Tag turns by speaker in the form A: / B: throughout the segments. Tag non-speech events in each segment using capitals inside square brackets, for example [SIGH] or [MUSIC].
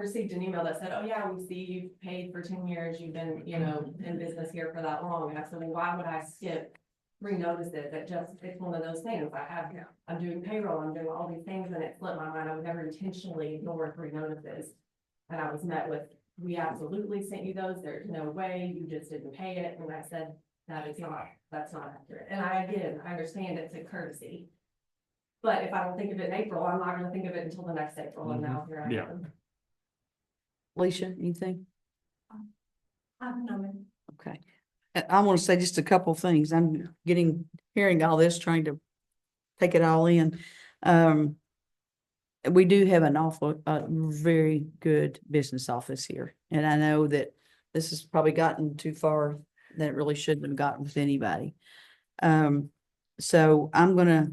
A: received an email that said, oh yeah, we see you've paid for ten years, you've been, you know, in business here for that long, and I said, well, why would I skip? Renotice it, that just, it's one of those things, I have,
B: Yeah.
A: I'm doing payroll, I'm doing all these things, and it slipped my mind, I would never intentionally ignore three notices. And I was met with, we absolutely sent you those, there's no way, you just didn't pay it, and I said, that is not, that's not accurate, and I, again, I understand it's a courtesy. But if I don't think of it in April, I'm not gonna think of it until the next April, and now here I am.
C: Yeah.
D: Alicia, anything?
A: I don't know.
D: Okay. I, I want to say just a couple things. I'm getting, hearing all this, trying to take it all in. Um, we do have an awful, a very good business office here. And I know that this has probably gotten too far than it really shouldn't have gotten with anybody. Um, so I'm gonna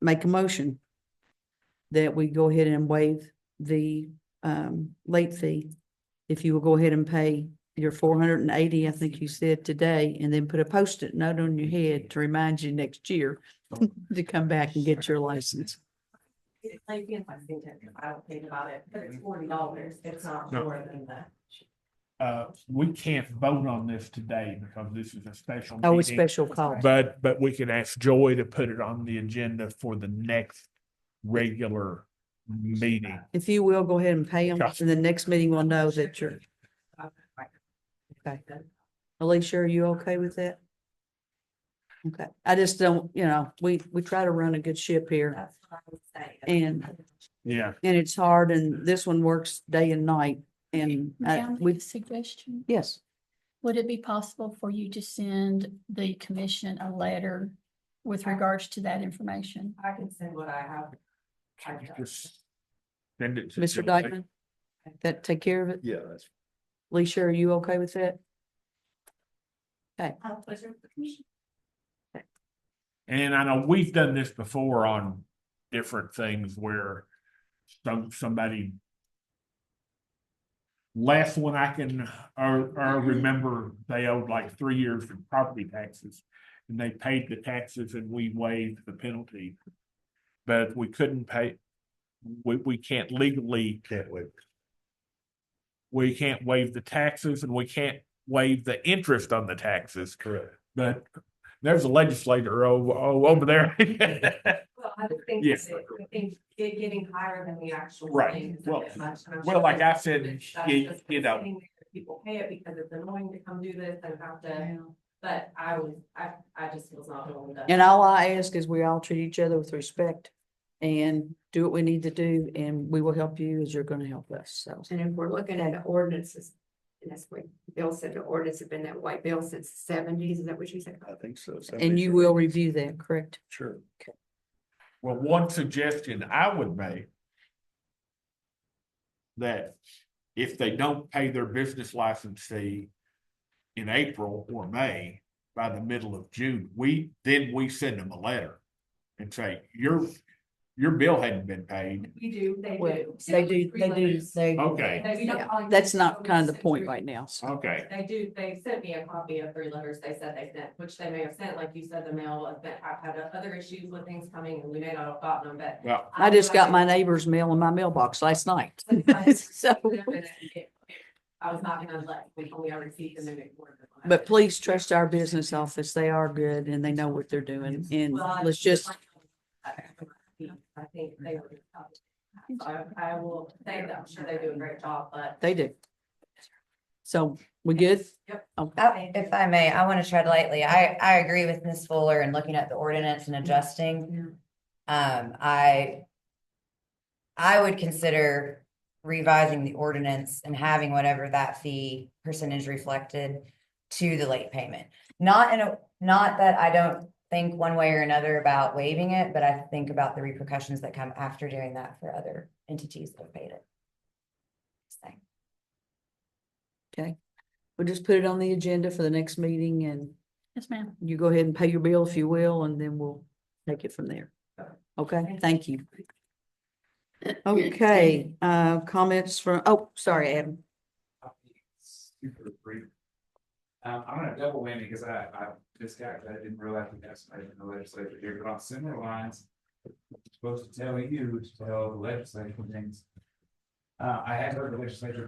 D: make a motion that we go ahead and waive the, um, late fee. If you will go ahead and pay your four hundred and eighty, I think you said today, and then put a post-it note on your head to remind you next year to come back and get your license.
A: It's like being Lexington, I don't think about it, but it's forty dollars, it's not
C: No.
A: more than that.
C: [LAUGHS] Uh, we can't vote on this today because this is a special.
D: Oh, a
C: meeting,
D: special call.
C: But, but we can ask Joy to put it on the agenda for the next regular meeting.
D: If you will, go ahead and pay them,
C: Gotcha.
D: and the next meeting will know that you're, Okay. Alicia, are you okay with that? Okay, I just don't, you know, we, we try to run a good ship here,
A: That's what I would say.
D: And-
C: Yeah,
D: and it's hard, and this one works day and night, and uh,
E: Can I make
D: we,
E: a suggestion?
D: yes,
E: Would it be possible for you to send the commission a letter with regards to that information?
A: I can send what I have.
C: can you just send it to
D: Mr.
C: Joy?
D: Dykeman? That take care of it?
F: Yeah, that's,
D: Alicia, are you okay with that?
A: Uh, pleasure of the commission.
C: And I know we've done this before on different things where some, somebody last one I can, or, or
F: Mm-hmm.
C: remember, they owed like three years of property taxes. And they paid the taxes and we waived the penalty. But we couldn't pay, we, we can't legally,
F: can't wait.
C: we can't waive the taxes and we can't waive the interest on the taxes.
F: Correct.
C: But there's a legislator over, oh, over there. [LAUGHS]
A: Well, I would think,
C: Yes.
A: that- I think it getting higher than the actual.
C: Right.
A: thing is a
C: Well-
A: bit much, and I'm
C: Well,
A: sure
C: like I
A: that's-
C: said,
A: that's
C: you,
A: just
C: you know,
A: sitting there, People pay it because it's annoying to come do this and have to, but I was, I, I just was not willing to.
D: And all I ask is we all treat each other with respect and do what we need to do, and we will help you as you're gonna help us, so.
B: And if we're looking at the ordinances, and that's what Bill said, the ordinance have been that way, Bill, since the seventies, is that what you said?
F: I think so.
D: And you will review that, correct?
F: Sure.
C: well, one suggestion I would make. That if they don't pay their business license fee. In April or May, by the middle of June, we, then we send them a letter. And say, your, your bill hadn't been paid.
A: We do, they do.
D: They do, they do, they,
C: Okay,
A: They- we don't call it-
D: that's not kind of the point
A: It's-
D: right now, so.
C: okay,
A: They do, they sent me a copy of three letters they said they sent, which they may have sent, like you said, the mail, but I've had other issues with things coming and we may not have gotten them, but.
C: well,
D: I just got my neighbor's mail in my mailbox last night, [LAUGHS] so.
A: [LAUGHS] I was not gonna let, we only ever received them in the board.
D: But please trust our business office, they are good and they know what they're doing, and
A: Well, I-
D: let's just,
A: I think they were. I, I will say that, I'm sure they do a great job, but.
D: they do. So, we good?
A: Yep.
D: Okay.
G: Uh, If I may, I want to tread lightly. I, I agree with Ms. Fuller and looking at the ordinance and adjusting. Um, I, I would consider revising the ordinance and having whatever that fee percentage reflected to the late payment. Not in a, not that I don't think one way or another about waiving it, but I think about the repercussions that come after doing that for other entities that have paid it. Just saying.
D: We'll just put it on the agenda for the next meeting and
E: Yes, ma'am.
D: you go ahead and pay your bill if you will, and then we'll take it from there. Okay, thank you. Okay, uh, comments from, oh, sorry, Adam.
H: super brief. Um, I'm gonna double whammy because I, I just got, I didn't realize we got somebody in the legislature here, but on similar lines. I'm Supposed to tell you to tell the legislature things. Uh, I had heard the legislature